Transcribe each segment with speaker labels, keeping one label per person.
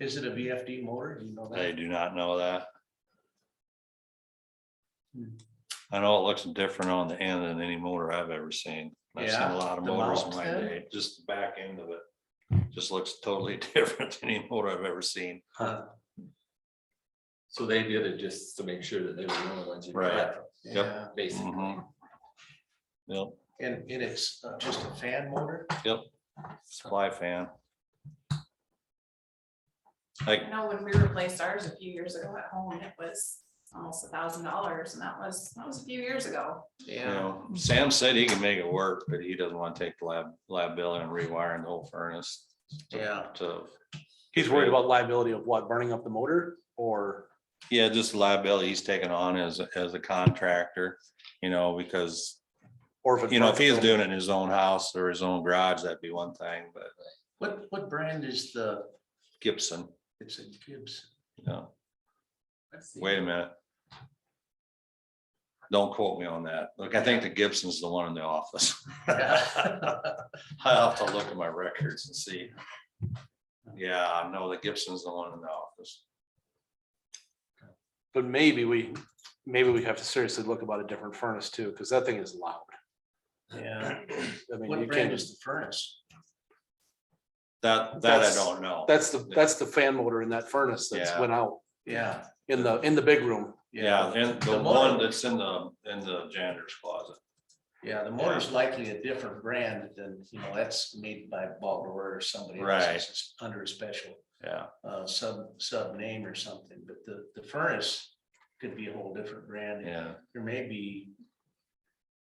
Speaker 1: Is it a VFD motor? Do you know
Speaker 2: I
Speaker 1: that?
Speaker 2: do not know that.
Speaker 1: Hmm.
Speaker 2: I know it looks different on the end than any motor I've ever seen. I've seen
Speaker 1: Yeah,
Speaker 2: a lot of
Speaker 1: the
Speaker 2: motors in
Speaker 1: mount
Speaker 2: my
Speaker 1: then?
Speaker 2: day, just the back end of it. Just looks totally different than any motor I've ever seen.
Speaker 1: Huh,
Speaker 3: So they did it just to make sure that they were the only ones. you could
Speaker 2: Right.
Speaker 3: have,
Speaker 2: Yep.
Speaker 1: Yeah,
Speaker 3: Basically.
Speaker 2: Mhm. Yep,
Speaker 1: and, and it's uh, just a fan motor?
Speaker 2: supply fan. Like,
Speaker 4: I know when we replaced ours a few years ago at home, it was almost a thousand dollars and that was, that was a few years ago.
Speaker 2: you know, Sam said he can make it work, but he doesn't want to take the lab, lab bill and rewiring the whole furnace.
Speaker 1: Yeah.
Speaker 2: So,
Speaker 5: He's worried about liability of what, burning up the motor or?
Speaker 2: yeah, just the liability he's taking on as, as a contractor, you know, because
Speaker 5: or if it
Speaker 2: You know, if he was
Speaker 5: burns-
Speaker 2: doing it in his own house or his own garage, that'd be one thing, but
Speaker 1: What, what brand is the,
Speaker 2: Gibson,
Speaker 1: it's a Gibbs?
Speaker 2: you know, wait a minute. Don't quote me on that. Look, I think the Gibson's the one in the office. I'll have to look at my records and see. Yeah, no, the Gibson's the one in the office.
Speaker 5: But maybe we, maybe we have to seriously look about a different furnace too, because that thing is loud.
Speaker 1: Yeah,
Speaker 5: I mean,
Speaker 1: what
Speaker 5: you
Speaker 1: brand
Speaker 5: can't
Speaker 1: is
Speaker 5: just,
Speaker 1: the furnace?
Speaker 2: That, that I
Speaker 5: That's-
Speaker 2: don't know.
Speaker 5: that's the, that's the fan motor in that furnace that's
Speaker 2: Yeah.
Speaker 5: went out
Speaker 1: Yeah.
Speaker 5: in the, in the big room.
Speaker 2: Yeah, and the
Speaker 1: The motor-
Speaker 2: one that's in the, in the janitor's closet.
Speaker 1: Yeah, the motor's likely a different brand than, you know, that's made by Baldor or somebody. else.
Speaker 2: Right.
Speaker 1: It's just Under a special
Speaker 2: Yeah,
Speaker 1: uh sub, sub name or something, but the, the furnace could be a whole different brand.
Speaker 2: yeah.
Speaker 1: There may be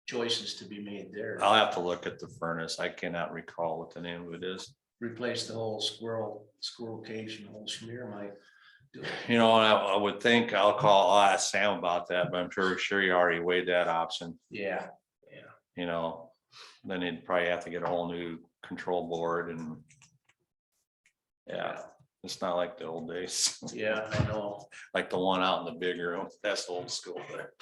Speaker 1: choices to be made there.
Speaker 2: I'll have to look at the furnace. I cannot recall what the name of it is.
Speaker 1: Replace the whole squirrel, squirrel cage and whole schmear might do it.
Speaker 2: You know, and I, I would think I'll call, I'll ask Sam about that, but I'm sure, sure he already weighed that option,
Speaker 1: Yeah,
Speaker 2: you know. Then he'd probably have to get a whole new control board and. Yeah, it's not like the old days,
Speaker 1: yeah, I know.
Speaker 2: like the one out in the big room. That's old school there.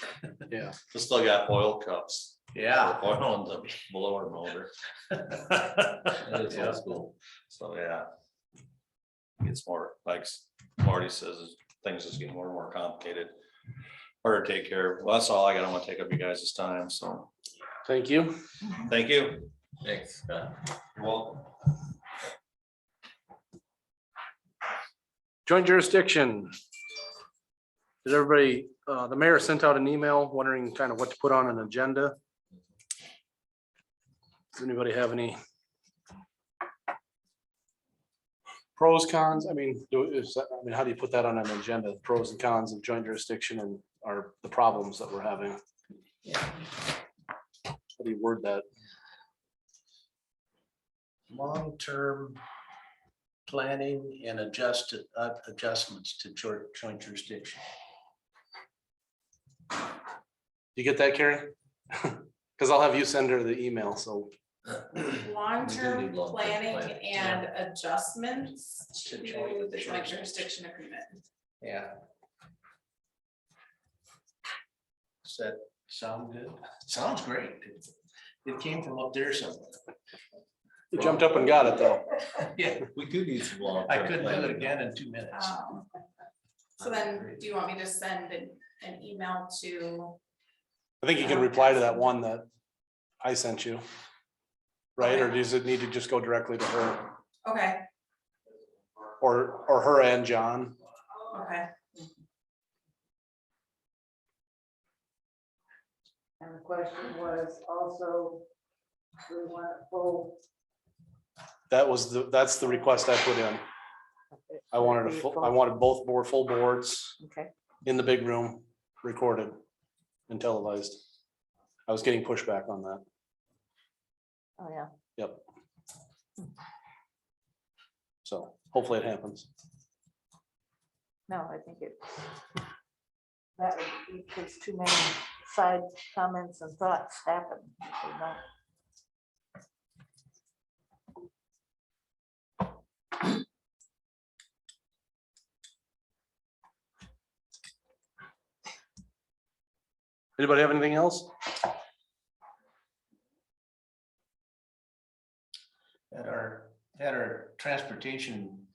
Speaker 5: Yeah.
Speaker 2: It's still got oil cups.
Speaker 1: Yeah.
Speaker 2: Oil in the blower motor.
Speaker 3: It's
Speaker 1: Yeah.
Speaker 3: old school.
Speaker 2: So, yeah. It's more, like Marty says, is things just get more and more complicated. Harder to take care of. Well, that's all I got. I don't want to take up you guys' time, so
Speaker 5: Thank you.
Speaker 2: thank you.
Speaker 3: Thanks. Scott.
Speaker 2: You're welcome.
Speaker 5: Joint jurisdiction. Did everybody, uh, the mayor sent out an email wondering kind of what to put on an agenda? Does anybody have any? Pros, cons, I mean, do, is, that- I mean, how do you put that on an agenda, pros and cons of joint jurisdiction and are the problems that we're having? How do you word that?
Speaker 1: long-term planning and adjusted, uh, adjustments to jur- joint jurisdiction.
Speaker 5: You get that, Carrie? Cause I'll have you send her the email, so
Speaker 4: Long-term
Speaker 3: need long-term
Speaker 4: planning
Speaker 3: planning,
Speaker 4: and adjustments
Speaker 1: To
Speaker 4: to
Speaker 1: joint
Speaker 4: the joint
Speaker 1: jurisdiction.
Speaker 4: jurisdiction agreement.
Speaker 1: Yeah. Does that sound good? Sounds great. It- It came from up there somewhere.
Speaker 5: you jumped up and got it though.
Speaker 1: Yeah,
Speaker 3: We do need some long.
Speaker 1: I couldn't do it again in two minutes.
Speaker 4: Um, So then, do you want me to send an, an email to?
Speaker 5: I think you can reply to that one that I sent you. Right, or does it need to just go directly to her
Speaker 4: Okay,
Speaker 5: or, or her and John?
Speaker 4: okay.
Speaker 6: And the question was also, do we want it full?
Speaker 5: That was the, that's the request I put in. I wanted a full, I wanted both board, full boards
Speaker 6: Okay,
Speaker 5: in the big room, recorded and televised. I was getting pushback on that.
Speaker 6: oh, yeah.
Speaker 5: Yep. So hopefully it happens.
Speaker 6: No, I think it. That would be, because too many side comments and thoughts happen. if they don't.
Speaker 5: Anybody have anything else?
Speaker 1: At our, at our transportation